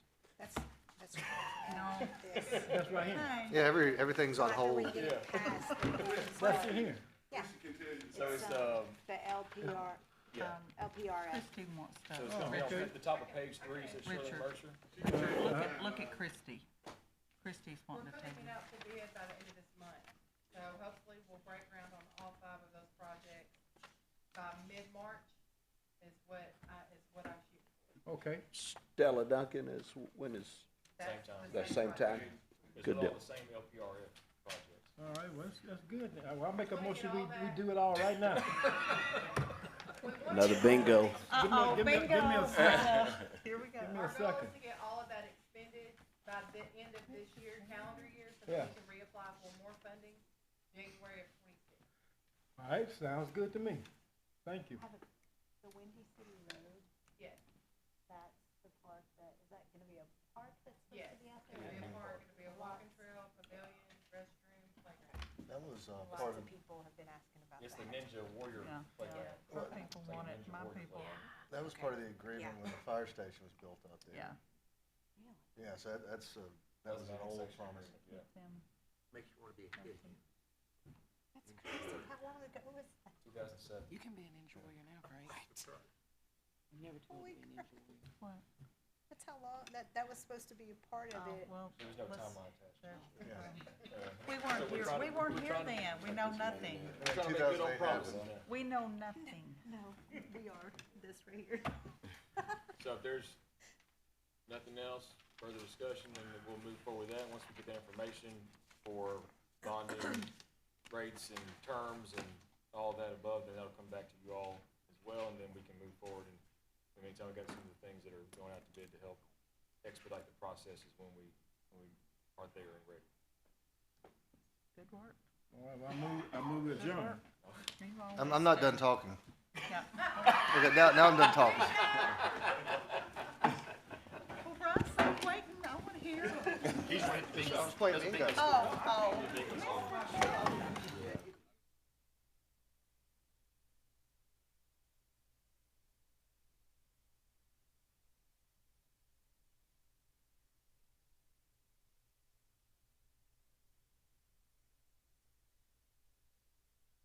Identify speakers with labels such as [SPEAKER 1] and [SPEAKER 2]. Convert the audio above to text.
[SPEAKER 1] That's right here.
[SPEAKER 2] time
[SPEAKER 3] Yeah, every, everything's on
[SPEAKER 2] after we
[SPEAKER 3] hold.
[SPEAKER 2] get it passed the board's
[SPEAKER 1] That's
[SPEAKER 2] way.
[SPEAKER 1] it here.
[SPEAKER 2] Yeah,
[SPEAKER 4] So it's,
[SPEAKER 2] So-
[SPEAKER 4] um,
[SPEAKER 2] the LPR,
[SPEAKER 4] yeah,
[SPEAKER 2] um, LPRF.
[SPEAKER 5] Christie wants to,
[SPEAKER 4] so it's gonna be on
[SPEAKER 1] okay.
[SPEAKER 4] the top of page three, it says Shirley
[SPEAKER 5] Richard.
[SPEAKER 4] Mercer.
[SPEAKER 5] look at, look at Christie. Christie's
[SPEAKER 6] We're
[SPEAKER 5] wanting to take
[SPEAKER 6] putting it out to bid by the end of this month, so hopefully we'll break ground on all five of those projects by mid-March is what, I is what I'm shooting.
[SPEAKER 1] Okay.
[SPEAKER 7] Stella Duncan is, when is,
[SPEAKER 6] That's
[SPEAKER 4] Same time.
[SPEAKER 6] the
[SPEAKER 7] that same
[SPEAKER 6] project.
[SPEAKER 7] time?
[SPEAKER 4] It's
[SPEAKER 7] Good
[SPEAKER 4] all
[SPEAKER 7] deal.
[SPEAKER 4] the same LPRF projects.
[SPEAKER 1] All right, well, that's, that's good. then. Well, I'll make a
[SPEAKER 6] Wanna
[SPEAKER 1] motion,
[SPEAKER 6] get
[SPEAKER 1] we,
[SPEAKER 6] all
[SPEAKER 1] we
[SPEAKER 6] that?
[SPEAKER 1] do it all right now.
[SPEAKER 6] We want
[SPEAKER 7] Another
[SPEAKER 6] to-
[SPEAKER 7] bingo.
[SPEAKER 1] Give me a- give me a- Give me a second.
[SPEAKER 5] Here we go.
[SPEAKER 1] Give me a
[SPEAKER 6] Our goal
[SPEAKER 1] second.
[SPEAKER 6] is to get all of that expended by the end of this year, calendar year, so
[SPEAKER 1] Yeah.
[SPEAKER 6] that we can reapply for more funding January of twenty-six.
[SPEAKER 1] All right, sounds good to me. Thank you.
[SPEAKER 2] Have a- The Windy City Road,
[SPEAKER 6] Yes,
[SPEAKER 2] that's the park that, is that gonna be a park that's supposed
[SPEAKER 6] yes.
[SPEAKER 2] to be out
[SPEAKER 6] It'll
[SPEAKER 2] there?
[SPEAKER 6] be a park, it'll be a walking trail, pavilion, restroom, playground.
[SPEAKER 8] That was, uh, part
[SPEAKER 2] Lots
[SPEAKER 8] of,
[SPEAKER 2] of people have been asking about
[SPEAKER 4] It's the
[SPEAKER 2] that.
[SPEAKER 4] Ninja Warrior
[SPEAKER 5] Yeah.
[SPEAKER 4] playground.
[SPEAKER 5] Her people want it, my people,
[SPEAKER 8] that was part of the agreement when the fire station was built out there.
[SPEAKER 5] yeah.
[SPEAKER 8] Yeah, so that, that's, uh, that was an old promise.
[SPEAKER 4] Yeah.
[SPEAKER 5] them.
[SPEAKER 7] Makes you wanna be a kid.
[SPEAKER 2] That's crazy, how long ago was that?
[SPEAKER 4] Two thousand seven.
[SPEAKER 9] You can be an ninja warrior now, right? I'm never told
[SPEAKER 2] Holy
[SPEAKER 9] to be a
[SPEAKER 2] crap.
[SPEAKER 9] ninja
[SPEAKER 5] What?
[SPEAKER 9] warrior.
[SPEAKER 2] That's how long, that, that was supposed to be a part of
[SPEAKER 5] Oh,
[SPEAKER 2] it.
[SPEAKER 5] well,
[SPEAKER 4] There was no
[SPEAKER 5] let's-
[SPEAKER 4] timeline attached.
[SPEAKER 8] Yeah.
[SPEAKER 5] we
[SPEAKER 4] So
[SPEAKER 5] weren't here,
[SPEAKER 4] we're trying
[SPEAKER 5] we
[SPEAKER 4] to-
[SPEAKER 5] weren't
[SPEAKER 4] we're
[SPEAKER 5] here
[SPEAKER 4] trying to-
[SPEAKER 5] then, we know nothing.
[SPEAKER 4] We're trying to make good old
[SPEAKER 8] 2008
[SPEAKER 4] promises
[SPEAKER 8] happened.
[SPEAKER 4] now.
[SPEAKER 5] We know nothing.
[SPEAKER 2] No, we are, this right here.
[SPEAKER 4] So if there's nothing else, further discussion, then we'll move forward with that. Once we get that information for bonding rates and terms and all that above, then that'll come back to you all as well, and then we can move forward. And in the meantime, we've got some of the things that are going out to bid to help expedite the processes when we, when we are there and ready.
[SPEAKER 5] Good work.
[SPEAKER 1] All right, well, I move, I move adjourned.
[SPEAKER 5] You've
[SPEAKER 3] I'm,
[SPEAKER 5] always
[SPEAKER 3] I'm not done
[SPEAKER 5] been-
[SPEAKER 3] talking.
[SPEAKER 5] Yeah.
[SPEAKER 3] Okay, now, now I'm done talking.
[SPEAKER 5] Well, Russ, I'm waiting, I wanna hear.
[SPEAKER 2] Oh,
[SPEAKER 3] I was playing bingo.
[SPEAKER 5] Oh, oh.